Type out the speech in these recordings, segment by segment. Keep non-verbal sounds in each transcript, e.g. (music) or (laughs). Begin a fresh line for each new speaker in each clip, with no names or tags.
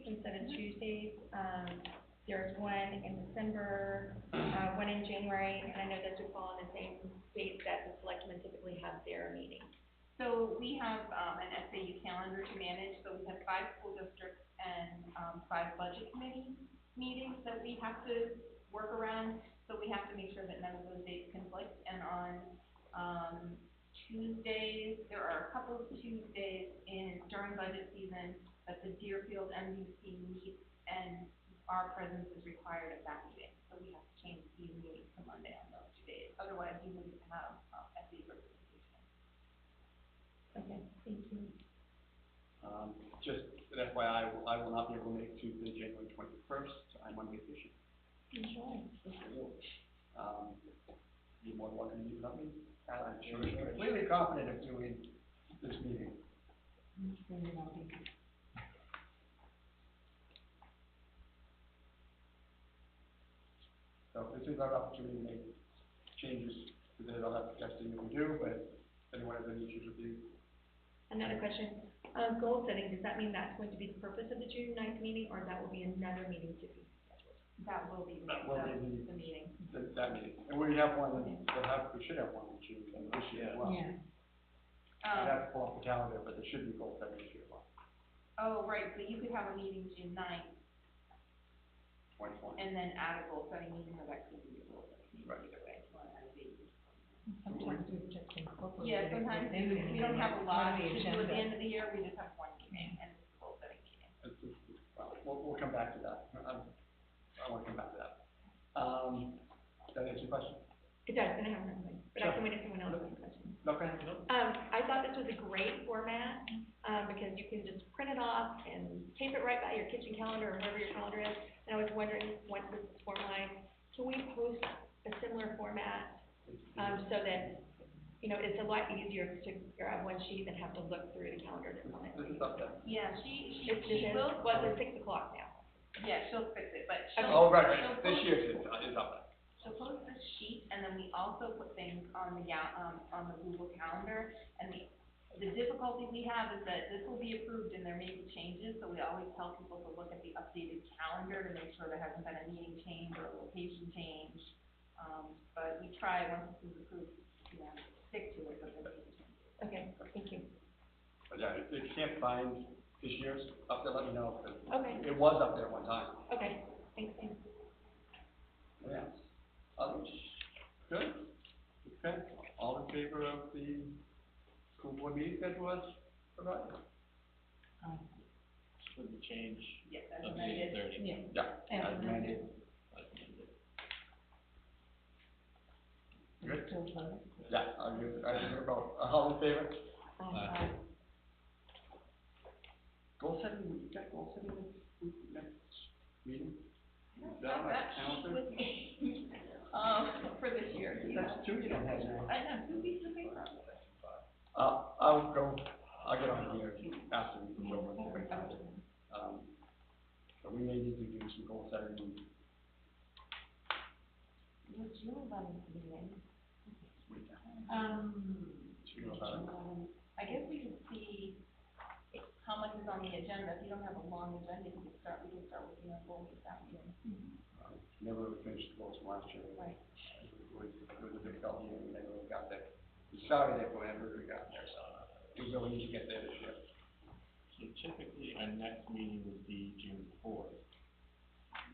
Um, uh, January, and I know this would fall on the same date that the selectmen typically have their meeting.
So we have, um, an SAU calendar to manage, so we have five school districts and, um, five budget committee meetings that we have to work around. So we have to make sure that none of those dates conflict, and on, um, Tuesdays, there are a couple of Tuesdays in, during budget season that the Deerfield MDC meets, and our presence is required at that meeting. So we have to change the meeting to Monday on those two days, otherwise we wouldn't have, um, SAU representation.
Okay, thank you.
Um, just an FYI, I will- I will not be able to make Tuesday, January twenty-first, I'm on vacation.
Enjoy.
Um, you're more than welcome to meet without me.
Uh,
I'm
you're
sure you're
completely confident of you in this meeting.
So this is our opportunity to make changes to that, I'll have to test it if we do, but if anyone has any issues with you,
Another question, um, goal setting, does that mean that's going to be the purpose of the June ninth meeting, or that will be another meeting to be scheduled?
That will be,
That will be the-
the meeting.
that, that meeting. And we have one, we'll have, we should have one in June, and this year as well.
Yeah,
Um,
I'd have to pull up the calendar, but there should be goals set this year, well,
oh, right, but you could have a meeting June ninth
twenty twenty.
and then add a goal setting meeting or that could be a goal setting meeting
Right.
either way. if you wanna add a date.
sometimes we just incorporate.
Yeah,
it
sometimes
within the
we don't have a
meeting,
lot
part
to
of
do at the
agenda.
end of the year, we just have one meeting and it's a goal setting meeting.
Well, we'll, we'll come back to that, Um, I wanna come back to that. Um, does that answer your question?
It does, and I have another one, but I
Sure.
can wait if someone else has a question.
No, go ahead.
Um, I thought this was a great format, um, because you can just print it off and tape it right by your kitchen calendar or wherever your calendar is. And I was wondering, once this is formalized, can we post a similar format, um, so that, you know, it's a lot easier to grab one sheet than have to look through the calendar to find
This
it.
is up there.
Yeah, she, she,
It's just,
she will,
well, it's six o'clock now.
yeah, she'll fix it, but
Okay.
she'll.
Oh, right,
she'll
right, this
post-
year's is, is up there.
She'll post the sheet, and then we also put things on the, gal- um, on the Google Calendar, and the, the difficulty we have is that this will be approved and there may be changes, so we always tell people to look at the updated calendar to make sure there hasn't been a meeting change or a location change. Um, but we try, once this is approved, you know, stick to it, but there may be changes.
Okay, thank you.
But yeah, if if you can't find this year's up there, let me know, but
Okay,
it was up there one time.
okay, thanks, Sam.
Yeah. Others? Good? Okay, all in favor of the school board meeting schedule as provided?
Aye.
With the change.
Yes, as amended.
Yeah,
Yeah.
As
as amended. Good?
still voting.
Yeah, I agree, I agree about, all in favor?
Um,
Aye.
Goal setting, we got goal setting next, week, next meeting? Is that
Have
on our
that sheet
calendar?
with me, (laughs) um, for this year. you know.
That's two you don't have now.
I know, two weeks away from it.
Uh, I'll go, I'll get on here after we go over the break. Um, but we may need to do some goal setting.
Would you allow me to be in?
with that.
Um,
Do you know about it?
I guess we can see how much is on the agenda, if you don't have a long agenda, you can start, we can start working on goals that year.
Uh, Never really finished the goals from last year.
Right.
It was, it was a difficult year, we never really got there. We started it, but we never really got there, so it was really easy to get there this year.
So typically, our next meeting would be June fourth.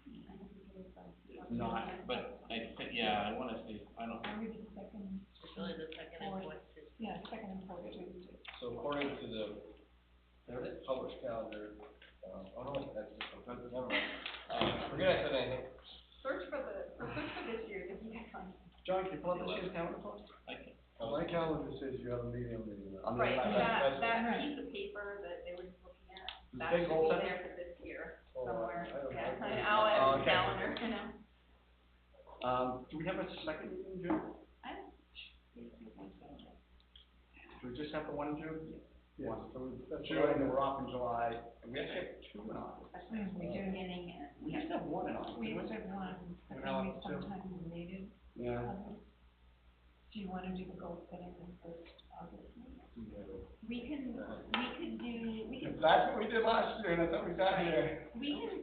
It's not, but I think, yeah, I wanna say, I don't,
are we the second? It's only the second and fourth. Yeah, second and fourth Tuesday.
So according to the, there is published calendar, uh, oh no, wait, that's just, oh, never mind. Uh, forget I said anything.
Search for the, or search for this year, if you can find.
John, can you pull up this year's calendar for us?
like, it.
Well, my calendar says you have a meeting on the, uh,
On the
Right,
left.
that's-
that, that
right.
piece of paper that they were just looking at,
The
that
big
should
goal
be
set?
there for this year
oh,
somewhere.
I don't know.
Yeah,
I-
I'll
Oh,
add the
okay.
calendar, you know.
Um, do we have a second meeting in June?
I
Do we just have the one in June?
Yeah.
One, so we-
That's
June,
right.
and we're off in July, and we actually have two in August.
Especially
We do.
beginning and.
We used to have one in August.
We
didn't
used to have one, but
We're
then we
now up to-
sometimes needed
Yeah.
others. Do you wanna do the goal setting in first August?
We can, we could do, we
If
could,
That's what we did last year, and that's what we got here.
we can